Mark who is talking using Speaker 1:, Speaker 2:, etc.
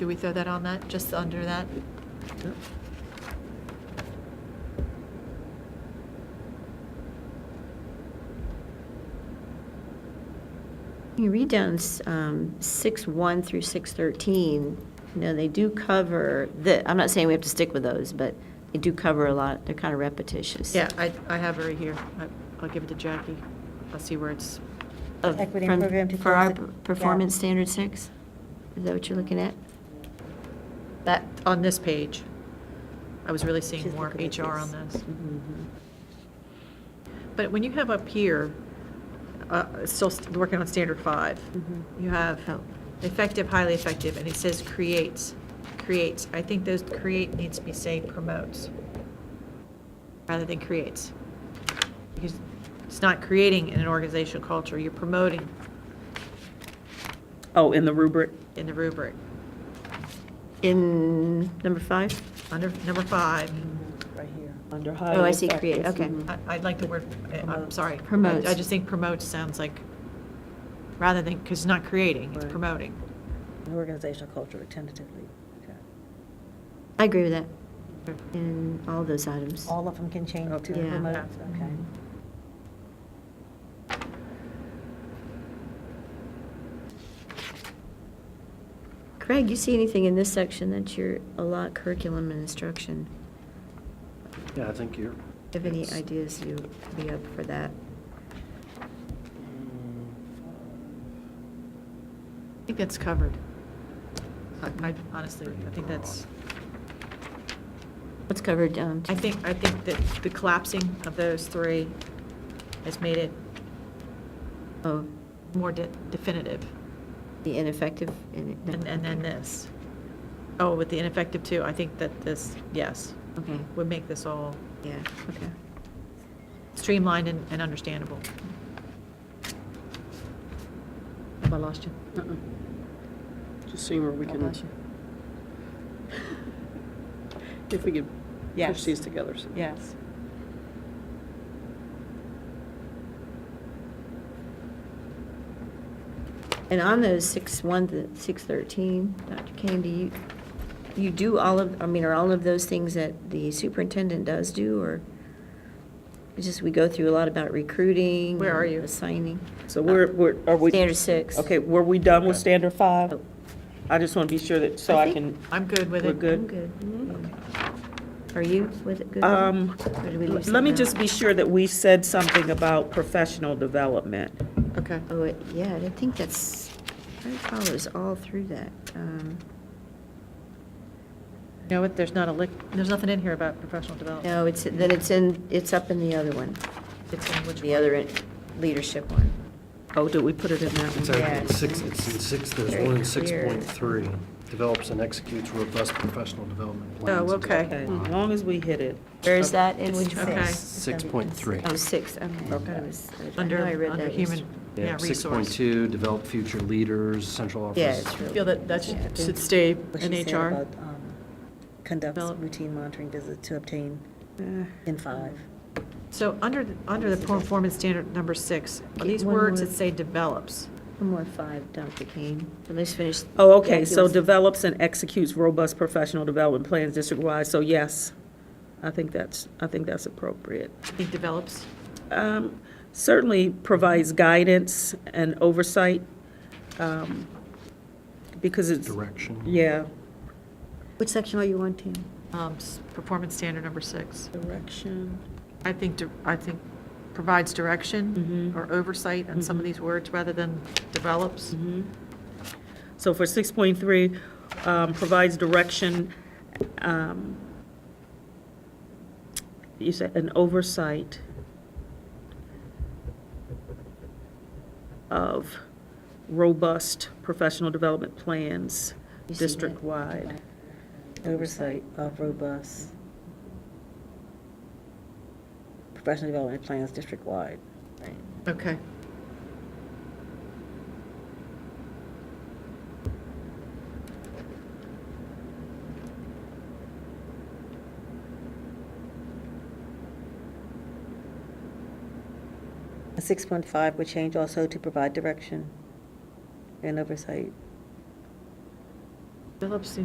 Speaker 1: Do we throw that on that, just under that?
Speaker 2: You read down um, 6.1 through 6.13, you know, they do cover, the. I'm not saying we have to stick with those, but they do cover a lot, they're kind of repetitious.
Speaker 1: Yeah, I, I have her right here. I- I'll give it to Jackie. I'll see where it's,
Speaker 2: Of-
Speaker 3: Equity
Speaker 2: from-
Speaker 3: program to
Speaker 2: For our
Speaker 3: close the-
Speaker 2: performance
Speaker 3: yeah.
Speaker 2: standard six? Is that what you're looking at?
Speaker 1: that, on this page. I was really seeing
Speaker 2: She's
Speaker 1: more
Speaker 2: looking at
Speaker 1: HR on
Speaker 2: this.
Speaker 1: this.
Speaker 2: Mhm.
Speaker 1: But when you have up here, uh, still st- working on standard five,
Speaker 2: Mhm.
Speaker 1: you have
Speaker 2: Oh.
Speaker 1: effective, highly effective, and it says creates, creates. I think those create needs to be saying promotes, rather than creates. Because it's not creating an organizational culture, you're promoting
Speaker 4: Oh, in the rubric?
Speaker 1: in the rubric.
Speaker 2: In number five?
Speaker 1: Under number five,
Speaker 3: Right here.
Speaker 4: Under highly
Speaker 2: Oh, I see, create,
Speaker 4: effective.
Speaker 2: okay.
Speaker 4: Mhm.
Speaker 1: I- I'd like the word, I- I'm
Speaker 4: Promotes.
Speaker 1: sorry. I-
Speaker 2: Promotes.
Speaker 1: I just think promotes sounds like, rather than, because it's not creating, it's
Speaker 4: Right.
Speaker 1: promoting.
Speaker 3: An Organizational culture, tentatively. Okay.
Speaker 2: I agree with that, in all those items.
Speaker 3: All of them can change to
Speaker 2: Yeah.
Speaker 3: promote, okay.
Speaker 2: Mhm. Craig, you see anything in this section that you're a lot curriculum and instruction?
Speaker 5: Yeah, I think you're.
Speaker 2: Do you have any
Speaker 5: it's-
Speaker 2: ideas you'd be up for that?
Speaker 1: I think that's covered. I I- honestly, I think that's,
Speaker 2: What's covered down?
Speaker 1: I think, I think that the collapsing of those three has made it
Speaker 2: Oh,
Speaker 1: more de- definitive.
Speaker 2: the ineffective and.
Speaker 1: And and then this. Oh, with the ineffective too, I think that this, yes,
Speaker 2: Okay,
Speaker 1: would make this all
Speaker 2: yeah, okay.
Speaker 1: streamlined and and understandable. Have I lost you?
Speaker 4: Uh-uh. Just seeing where we
Speaker 2: God
Speaker 4: can,
Speaker 2: bless you.
Speaker 4: if we could push
Speaker 3: Yes.
Speaker 4: these together. so-
Speaker 3: Yes.
Speaker 2: And on those six one, to six thirteen, Dr. Kane, do you, you do all of, I mean, are all of those things that the superintendent does do, or? It's just, we go through a lot about recruiting.
Speaker 1: Where are
Speaker 2: and
Speaker 1: you?
Speaker 2: Assigning.
Speaker 4: So we're, we're, are we?
Speaker 2: Standard six.
Speaker 4: Okay, were we done with
Speaker 5: Okay.
Speaker 4: standard five?
Speaker 2: Oh.
Speaker 4: I just want to be sure that, so
Speaker 2: I
Speaker 4: I can,
Speaker 2: think-
Speaker 1: I'm good with it.
Speaker 4: We're good.
Speaker 2: I'm good.
Speaker 1: Mm-hmm.
Speaker 2: Are you with it? Good?
Speaker 4: um,
Speaker 2: Or do we leave
Speaker 4: let me
Speaker 2: something
Speaker 4: just
Speaker 2: out?
Speaker 4: be sure that we said something about professional development.
Speaker 1: Okay.
Speaker 2: Oh, it- yeah, I think that's, that follows all through that. Um,
Speaker 1: You know what, there's not a lick, there's nothing in here about professional development.
Speaker 2: No, it's, then it's in, it's up in the other one,
Speaker 1: It's in which
Speaker 2: the
Speaker 1: one?
Speaker 2: other en- leadership one.
Speaker 4: Oh, did we put it in that
Speaker 5: It's
Speaker 4: one?
Speaker 5: actually
Speaker 2: Yeah.
Speaker 5: in six, it's in six, there's
Speaker 2: Very
Speaker 5: one in
Speaker 2: clear.
Speaker 5: 6.3. Develops and executes robust professional development plans.
Speaker 1: Oh, okay.
Speaker 4: Okay, As long as we hit it.
Speaker 2: Where is that in which one?
Speaker 1: Okay.
Speaker 5: 6.3.
Speaker 2: Oh, six, okay. I thought it was- I
Speaker 1: Under,
Speaker 2: know I read
Speaker 1: under
Speaker 2: that
Speaker 1: human,
Speaker 2: yesterday.
Speaker 1: yeah,
Speaker 5: Yeah,
Speaker 1: resource.
Speaker 5: 6.2, develop future leaders, central office.
Speaker 2: Yeah, it's really.
Speaker 1: Feel that that
Speaker 2: yeah.
Speaker 1: should should stay
Speaker 3: What
Speaker 1: in
Speaker 3: she said
Speaker 1: HR.
Speaker 3: about, um, Conducts
Speaker 1: Develop-
Speaker 3: routine monitoring visits to obtain
Speaker 4: Eh.
Speaker 3: in five.
Speaker 1: So under, the- under the performance standard number six, are
Speaker 2: Get
Speaker 1: these
Speaker 2: one
Speaker 1: words that
Speaker 2: word.
Speaker 1: say develops?
Speaker 2: One more five, Dr. Kane. But Let's finish.
Speaker 4: Oh, okay, so
Speaker 2: develop.
Speaker 4: develops and executes robust professional development plans district-wide, so yes, I think that's, I think that's appropriate.
Speaker 1: I think develops,
Speaker 4: Um, Certainly provides guidance and oversight, um, because it's,
Speaker 5: Direction.
Speaker 4: yeah.
Speaker 2: Which section are you wanting?
Speaker 1: um, s- performance standard number six.
Speaker 4: Direction.
Speaker 1: I think, di- I think provides direction
Speaker 4: Mhm.
Speaker 1: or oversight on some of
Speaker 4: Mhm.
Speaker 1: these words rather than develops.
Speaker 4: Mhm. So for 6.3, um, provides direction, um, you said, an oversight of robust professional development plans
Speaker 2: You see that?
Speaker 4: district-wide.
Speaker 3: Oversight of robust professional development plans district-wide.
Speaker 1: Okay.
Speaker 3: Six point five would change also to provide direction and oversight
Speaker 1: Phillips